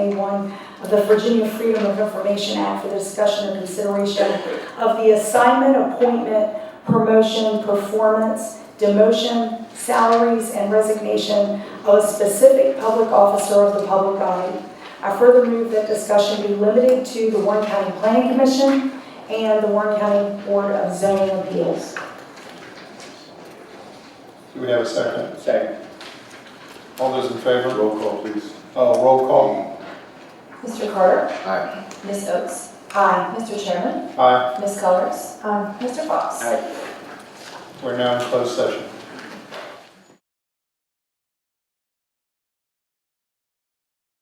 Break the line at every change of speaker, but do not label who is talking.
A1 of the Virginia Freedom of Information Act for the discussion and consideration of the assignment, appointment, promotion, performance, demotion, salaries, and resignation of a specific public officer of the public body. I further move that discussion be limited to the Warren County Planning Commission and the Warren County Board of Zoning Appeals.
Do we have a second?
Second.
All those in favor?
Roll call, please.
Uh, roll call.
Mr. Carter?
Aye.
Ms. Oates?
Aye.
Mr. Chairman?
Aye.
Ms. Cullors? Mr. Fox?
Aye.
We're now in closed session.